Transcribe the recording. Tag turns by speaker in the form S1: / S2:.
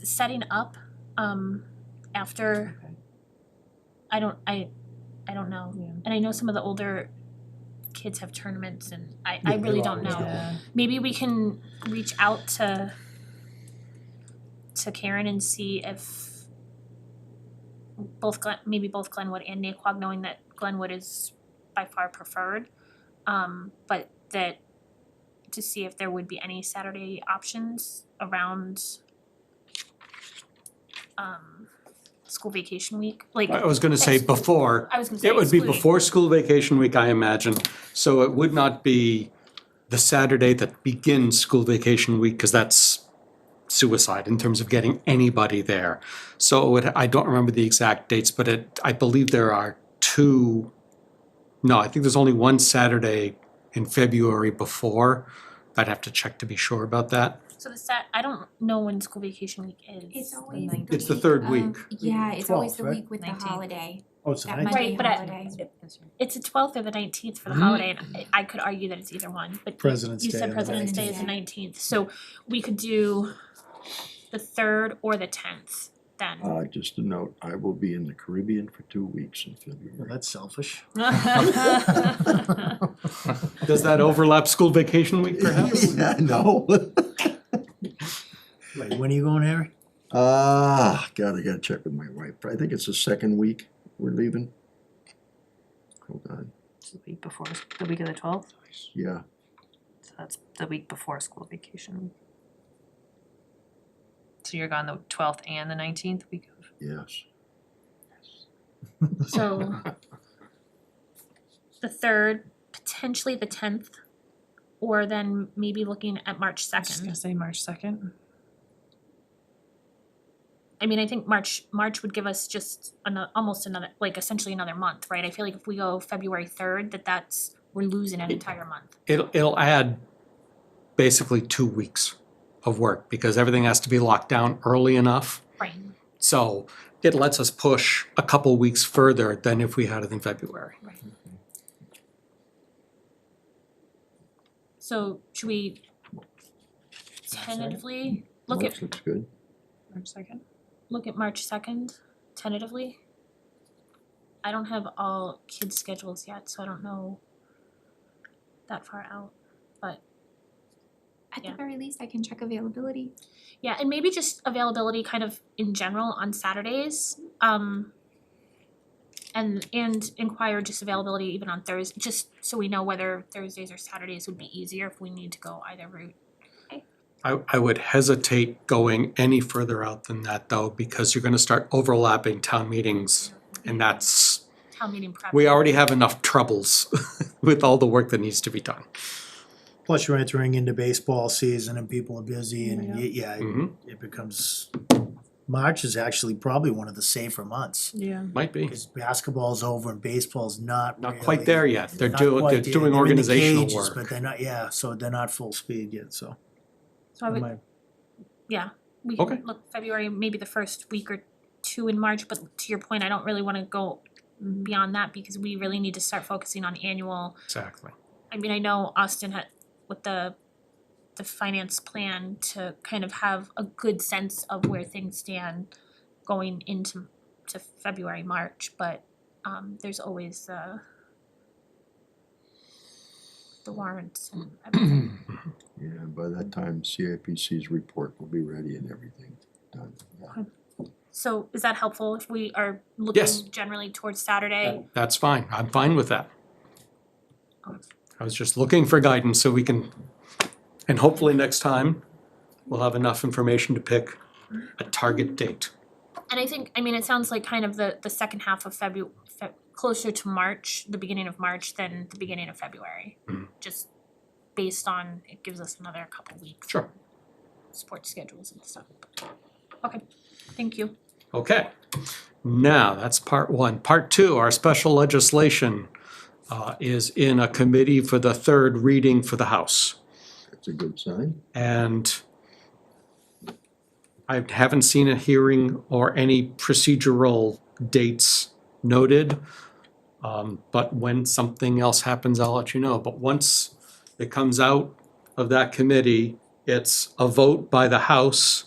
S1: it's setting up um after
S2: Okay.
S1: I don't I I don't know.
S2: Yeah.
S1: And I know some of the older kids have tournaments and I
S3: Yeah,
S1: I
S3: they
S1: really don't
S3: always
S1: know.
S3: do.
S1: Maybe we can reach out to to Karen and see if both Glen, maybe both Glenwood and Naquag, knowing that Glenwood is by far preferred. Um, but that to see if there would be any Saturday options around um school vacation week, like
S3: I was gonna say before,
S1: I was gonna say
S3: it would be
S1: excluding-
S3: before school vacation week, I imagine. So it would not be the Saturday that begins school vacation week, because that's suicide in terms of getting anybody there. So it would, I don't remember the exact dates, but it, I believe there are two, no, I think there's only one Saturday in February before. I'd have to check to be sure about that.
S1: So the Sat, I don't know when school vacation week is.
S4: It's always the
S2: ninth.
S3: It's the
S4: week
S3: third
S4: of-
S3: week.
S4: Yeah, it's always
S5: 12th,
S4: the
S5: right?
S4: week with the
S2: Nineteenth.
S4: holiday,
S5: Oh, it's the
S4: that
S5: ninth?
S4: Monday
S1: Right, but I-
S4: holiday.
S1: It's the twelfth or the nineteenth for the
S3: Mhm.
S1: holiday, and I I could argue that it's either one, but
S5: President's
S1: you
S5: Day.
S1: said President's Day is the nineteenth, so we could do the third or the tenth then.
S6: Uh, just a note, I will be in the Caribbean for two weeks in
S5: Well,
S6: February.
S5: that's selfish.
S3: Does that overlap school vacation week perhaps?
S6: Yeah, No.
S5: Wait, when are you going, Harry?
S6: Ah, God, I gotta check with my wife. I think it's the second week we're leaving. Hold on,
S7: the week before, s- the week of the twelfth,
S6: yeah,
S7: so that's the week before school vacation. So you're gone the twelfth and the nineteenth week of,
S6: yes.
S1: So the third, potentially the tenth, or then maybe looking at March
S7: I was just gonna
S1: second.
S7: say March second.
S1: I mean, I think March, March would give us just ano- almost another, like essentially another month, right? I feel like if we go February third, that that's, we're losing an entire month.
S3: it'll it'll add basically two weeks of work because everything has to be locked down early enough.
S1: Right.
S3: So it lets us push a couple weeks further than if we had it in February.
S1: So should we
S5: second?
S1: tentatively look at,
S6: March Looks good.
S7: March second?
S1: look at March second, tentatively? I don't have all kids' schedules yet, so I don't know that far out.
S4: At the
S1: Yeah.
S4: very least, I can check availability.
S1: Yeah, and maybe just availability kind of in general on Saturdays, um and and inquire just availability even on Thursdays, just so we know whether Thursdays or Saturdays would be easier if we need to go either route.
S3: I I would hesitate going any further out than that though, because you're gonna start overlapping town meetings and that's
S1: Town meeting prep.
S3: we already have enough troubles with all the work that needs to be done.
S5: Plus, you're entering into baseball season and people are
S1: Oh,
S5: busy and, y- yeah, it-
S3: Mhm,
S5: it becomes, March is actually probably one of the safer months.
S7: Yeah.
S3: might be.
S5: Because basketball's over and baseball's not
S3: Not
S5: really-
S3: quite there yet. They're
S5: not
S3: doing
S5: quite
S3: they're
S5: there.
S3: doing
S5: They're in the
S3: organizational
S5: cages, But
S3: work.
S5: they're not, yeah, so they're not full speed yet, so.
S1: So I would,
S5: might-
S1: we can
S3: Okay.
S1: look February, maybe the first week or two in March, but to your point, I don't really wanna go beyond that because we really need to start focusing on annual
S3: Exactly.
S1: I mean, I know Austin had with the the finance plan to kind of have a good sense of where things stand going into to February, March, but um there's always the the warrants and everything.
S6: Yeah, and by that time, CIPC's report will be ready and everything done. Yeah.
S1: So is that helpful if we are looking
S3: Yes.
S1: generally towards Saturday?
S3: That's fine. I'm fine with that.
S1: Okay.
S3: I was just looking for guidance so we can, and hopefully next time, we'll have enough information to pick a target date.
S1: And I think, I mean, it sounds like kind of the the second half of February, closer to March, the beginning of March than the beginning of February.
S3: Mhm.
S1: Just based on, it gives us another couple weeks.
S3: Sure.
S1: Sports schedules and stuff. Okay, thank you.
S3: Okay. Now, that's part one. Part two, our special legislation uh, is in a committee for the third reading for the House.
S6: That's a good sign.
S3: And I haven't seen a hearing or any procedural dates noted. Um, but when something else happens, I'll let you know. But once it comes out of that committee, it's a vote by the House